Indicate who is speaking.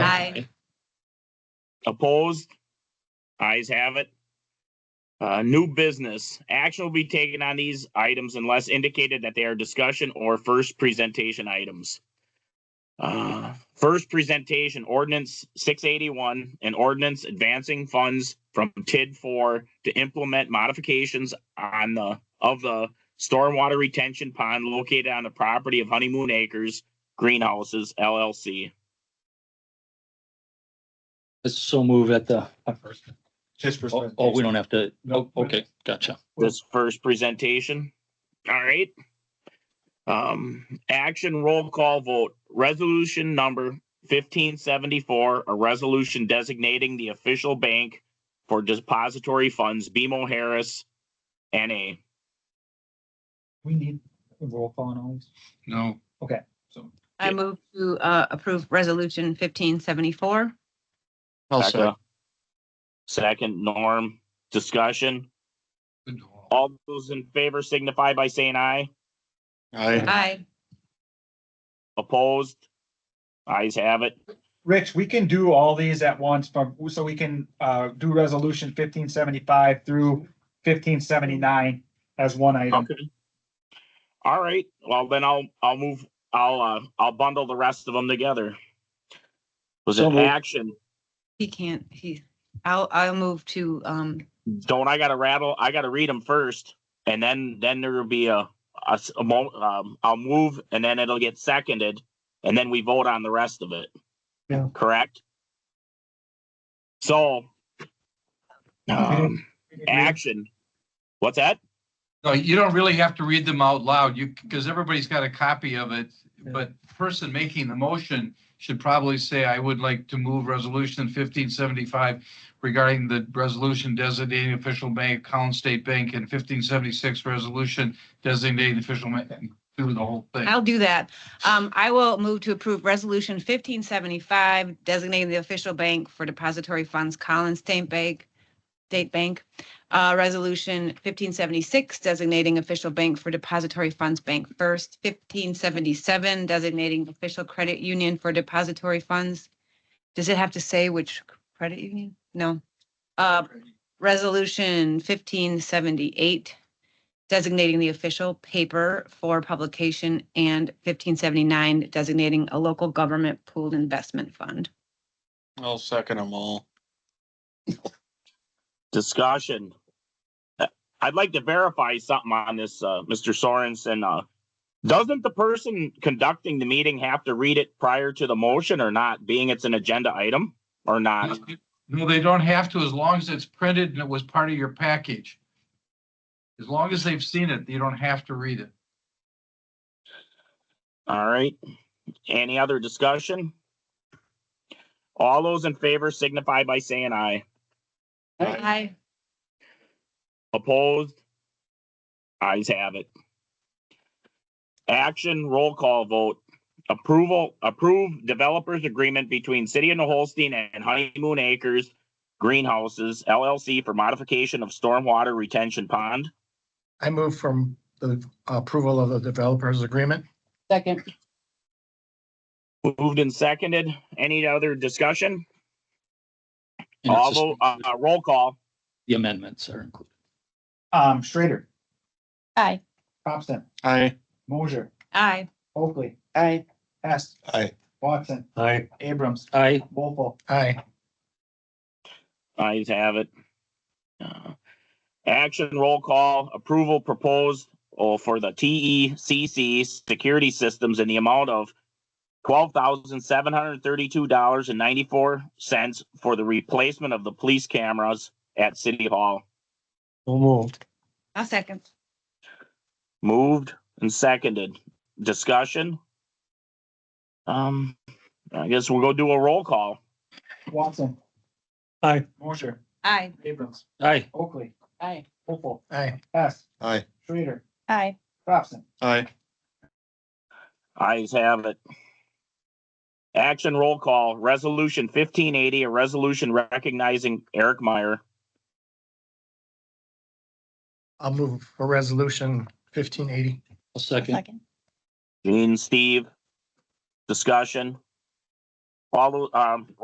Speaker 1: Opposed? Eyes have it. Uh, new business. Action will be taken on these items unless indicated that they are discussion or first presentation items. Uh, first presentation ordinance six eighty-one, an ordinance advancing funds from TID four to implement modifications on the, of the stormwater retention pond located on the property of Honeymoon Acres Greenhouses LLC.
Speaker 2: Let's so move at the,
Speaker 3: His
Speaker 2: oh,
Speaker 3: perspective.
Speaker 2: oh, we don't have to,
Speaker 3: No.
Speaker 2: oh, okay, gotcha.
Speaker 1: this first presentation. All right. Um, action roll call vote, resolution number fifteen seventy-four, a resolution designating the official bank for depository funds, BMO Harris, NA.
Speaker 3: We need a roll call on all these.
Speaker 4: No.
Speaker 3: Okay.
Speaker 4: So,
Speaker 5: I
Speaker 1: Yeah.
Speaker 5: move to uh, approve resolution fifteen seventy-four.
Speaker 2: I'll
Speaker 1: Becca. Second, Norm, discussion.
Speaker 4: good to all.
Speaker 1: All those in favor signify by saying aye.
Speaker 5: Aye.
Speaker 1: Opposed? Ayes have it.
Speaker 3: Rich, we can do all these at once, but so we can uh do resolution fifteen seventy-five through fifteen seventy-nine as one
Speaker 6: Um,
Speaker 3: item.
Speaker 1: Okay. All right, well, then I'll, I'll move, I'll, uh, I'll bundle the rest of them together. Was
Speaker 2: So
Speaker 1: it
Speaker 2: moved.
Speaker 1: action?
Speaker 5: He can't, he, I'll, I'll move to, um,
Speaker 1: Don't I gotta rattle, I gotta read them first, and then, then there will be a, a, s- a mo- um, I'll move, and then it'll get seconded, and then we vote on the rest of it.
Speaker 3: Yeah.
Speaker 1: Correct? So. Um,
Speaker 3: Act-
Speaker 1: action. What's that?
Speaker 4: No, you don't really have to read them out loud, you, because everybody's got a copy of it. But the person making the motion should probably say, I would like to move resolution fifteen seventy-five regarding the resolution designating official bank, Collins State Bank, and fifteen seventy-six resolution designating official bank, do the whole thing.
Speaker 5: I'll do that. Um, I will move to approve resolution fifteen seventy-five designating the official bank for depository funds Collins State Bank, State Bank. Uh, resolution fifteen seventy-six designating official bank for depository funds Bank First, fifteen seventy-seven designating official credit union for depository funds. Does it have to say which credit union? No. Uh, Resolution fifteen seventy-eight designating the official paper for publication and fifteen seventy-nine designating a local government pooled investment fund.
Speaker 2: I'll second them all.
Speaker 1: discussion. Uh, I'd like to verify something on this, uh, Mr. Sorensen, uh, doesn't the person conducting the meeting have to read it prior to the motion or not, being it's an agenda item or not?
Speaker 4: No, they don't have to, as long as it's printed and it was part of your package. As long as they've seen it, you don't have to read it.
Speaker 1: All right. Any other discussion? All those in favor signify by saying aye.
Speaker 5: Aye.
Speaker 1: Opposed? Eyes have it. Action roll call vote. Approval, approve developers agreement between City of New Holstein and Honeymoon Acres Greenhouses LLC for modification of stormwater retention pond.
Speaker 6: I move from the approval of the developers agreement.
Speaker 5: Second.
Speaker 1: Moved and seconded. Any other discussion?
Speaker 2: And it's
Speaker 1: Although, uh,
Speaker 2: just-
Speaker 1: uh, roll call.
Speaker 2: The amendments are included.
Speaker 3: Um, Schrader,
Speaker 5: Aye.
Speaker 3: Thompson,
Speaker 6: Aye.
Speaker 3: Mosier,
Speaker 5: Aye.
Speaker 3: Oakley,
Speaker 5: Aye.
Speaker 3: Hess,
Speaker 6: Aye.
Speaker 3: Watson,
Speaker 6: Aye.
Speaker 3: Abrams,
Speaker 2: Aye,
Speaker 3: Wolfle,
Speaker 6: Aye.
Speaker 1: Eyes have it. Uh, Action roll call approval proposed oh, for the TECC security systems in the amount of twelve thousand seven hundred thirty-two dollars and ninety-four cents for the replacement of the police cameras at City Hall.
Speaker 6: So moved.
Speaker 5: I'll second.
Speaker 1: Moved and seconded. Discussion? Um, I guess we'll go do a roll call.
Speaker 3: Watson.
Speaker 6: Aye.
Speaker 3: Mosier,
Speaker 5: Aye.
Speaker 3: Abrams,
Speaker 2: aye,
Speaker 3: Oakley,
Speaker 5: Aye.
Speaker 3: Wolfle,
Speaker 6: Aye.
Speaker 3: Hess,
Speaker 6: Aye.
Speaker 3: Schrader,
Speaker 5: Aye.
Speaker 3: Thompson.
Speaker 6: Aye.
Speaker 1: Eyes have it. Action roll call, resolution fifteen eighty, a resolution recognizing Eric Meyer.
Speaker 6: I'll move for resolution fifteen eighty.
Speaker 2: I'll second.
Speaker 1: Gene, Steve, discussion. All, um,